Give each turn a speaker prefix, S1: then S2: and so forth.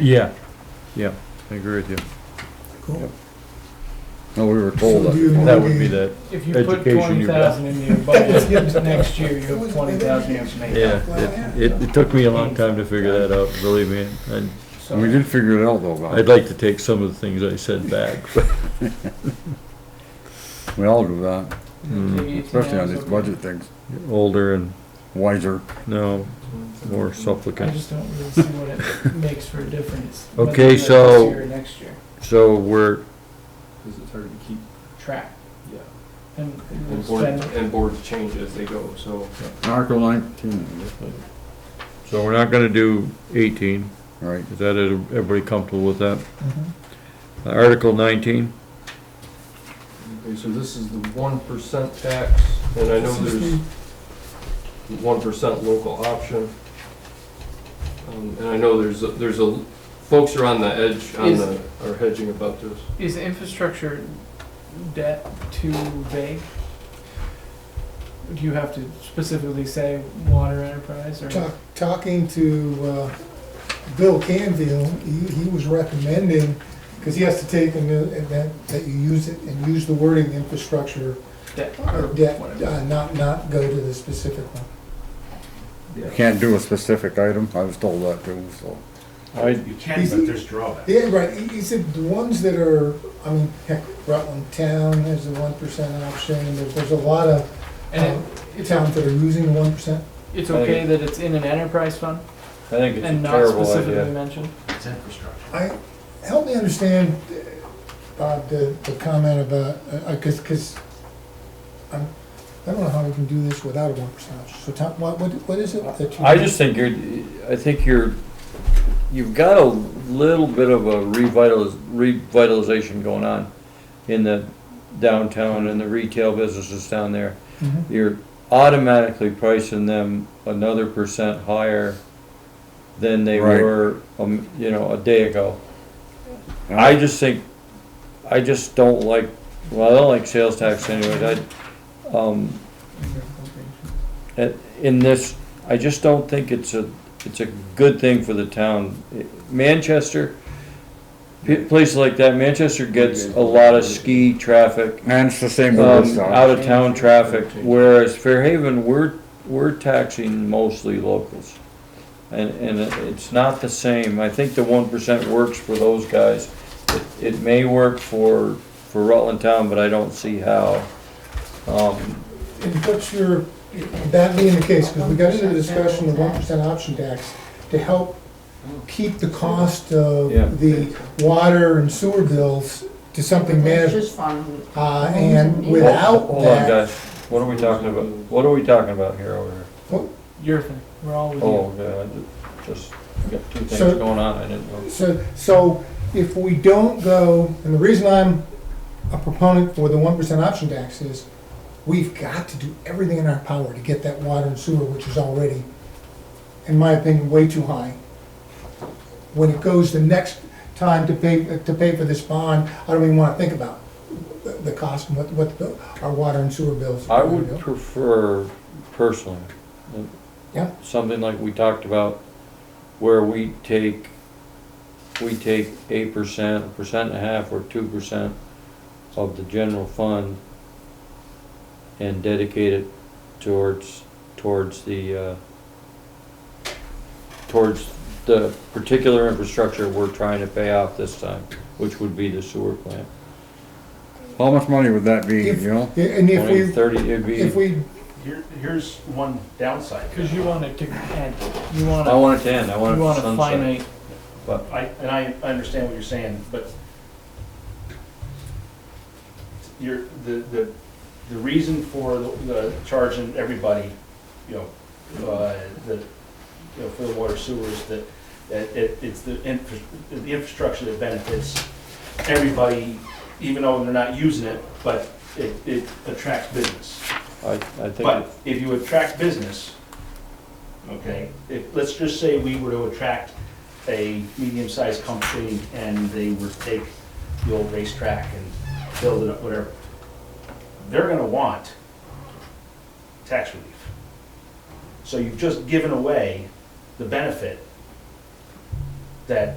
S1: Yeah,
S2: Yeah, I agree with you.
S3: Cool.
S2: No, we were told
S3: So do you
S2: that, that would be
S3: maybe-
S2: the,
S4: If you put
S2: Education
S4: twenty
S2: you've
S4: thousand in your budget, next year you have twenty thousand in
S2: yeah,
S4: maintenance.
S2: it- it, it took me a long time to figure that out, believe me. And
S4: So
S5: And we did figure it out though, Bob.
S2: I'd like to take some of the things I said back.
S5: We all do that,
S2: Mm-hmm.
S4: it'll take 18
S5: especially on
S4: hours
S5: these
S4: of-
S5: budget things.
S2: Older and
S5: Wiser.
S2: now more
S4: I
S2: supplicant.
S4: just don't really see what it makes for a difference. whether
S2: Okay,
S4: it's
S2: so-
S4: This year or next year,
S2: So we're,
S6: Because it's hard to keep,
S4: track,
S6: yeah,
S4: and we'll
S6: and board,
S4: spend,
S6: and boards change as they go, so.
S5: Article nineteen,
S2: so we're not gonna do eighteen.
S5: right,
S2: Is that, everybody comfortable with that? Mm-hmm. Uh, Article nineteen?
S6: Okay, so this is the one percent tax, and I know there's one percent local option. Um, And I know there's, a- there's a, folks are on the edge, on
S4: Is-
S6: the, are hedging about this.
S4: is infrastructure debt too vague? Do you have to specifically say water enterprise or?
S3: Talk, talking to, uh, Bill Canfield, he, he was recommending, cause he has to take an event that you use it and use the wording infrastructure
S4: debt
S3: uh,
S4: or
S3: debt,
S4: whatever?
S3: uh, not, not go to the specific one.
S5: you can't do a specific item, I was told that too, so.
S2: I,
S7: You can, but there's drawbacks.
S3: Yeah, right, he, he said the ones that are, I mean, heck, Rutland Town has the one percent option, and there- there's a lot of,
S4: And
S3: um, towns that are using the one percent.
S4: it- it's
S3: Uh,
S4: okay that it's in an enterprise fund
S2: I think
S4: and not specifically mentioned?
S7: It's infrastructure.
S3: I, help me understand, uh, Bob, the, the comment about, uh, uh, cause, cause I'm, I don't know how we can do this without a one percent option, so Tom, what, what, what is it that you?
S2: I just think you're, I think you're, you've got a little bit of a revitaliz- revitalization going on in the downtown and the retail businesses down there.
S3: Mhm.
S2: You're automatically pricing them another percent higher than they
S5: Right.
S2: were, um, you know, a day ago. I just think, I just don't like, well, I don't like sales tax anyways, I, um, at- in this, I just don't think it's a, it's a good thing for the town. Manchester, p- places like that, Manchester gets a lot of ski traffic,
S5: And it's the same
S2: um,
S5: with this, uh,
S2: out of town traffic, whereas Fairhaven, we're, we're taxing mostly locals. And, and it- it's not the same. I think the one percent works for those guys. It- It may work for, for Rutland Town, but I don't see how. Um,
S3: And what's your, that being the case, cause we got into the discussion of one percent option tax to help keep the cost of
S2: Yeah.
S3: the water and sewer bills to something manageable,
S8: Just fun.
S3: uh, and
S2: Hold-
S3: without
S2: Hold on,
S3: that,
S2: guys, what are we talking about, what are we talking about here over here?
S4: Your thing, we're all with you.
S2: Oh, God, I just got two things
S3: So-
S2: going on, I didn't know.
S3: So, so if we don't go, and the reason I'm a proponent for the one percent option tax is, we've got to do everything in our power to get that water and sewer, which is already, in my opinion, way too high. When it goes the next time to pay, to pay for this bond, I don't even wanna think about the- the cost and what, what the- our water and sewer bills.
S2: I
S3: are gonna
S2: would
S3: go.
S2: prefer personally. that
S3: Yeah.
S2: Something like we talked about, where we take, we take eight percent, a percent and a half, or two percent of the general fund and dedicate it towards, towards the, uh, towards the particular infrastructure we're trying to pay off this time, which would be the sewer plant.
S5: how much money would that be,
S3: If-
S5: you know?
S3: Yeah, And if
S2: Twenty,
S3: we,
S2: thirty, it'd be.
S3: if we,
S7: Here, here's one downside.
S4: Because you want it to end, you want
S2: I
S4: to,
S2: want it to end, I want it
S4: you want a
S2: sunset.
S4: finite,
S7: I, and I understand what you're saying, but you're, the, the, the reason for the, the charging everybody, you know, uh, the, you know, for the water sewers, that, that it, it's the infra, the infrastructure that benefits everybody, even though they're not using it, but it, it attracts business.
S2: I, I think.
S7: But if you attract business, okay, if, let's just say we were to attract a medium-sized company and they were to take the old racetrack and build it up, whatever, they're gonna want tax relief. So you've just given away the benefit that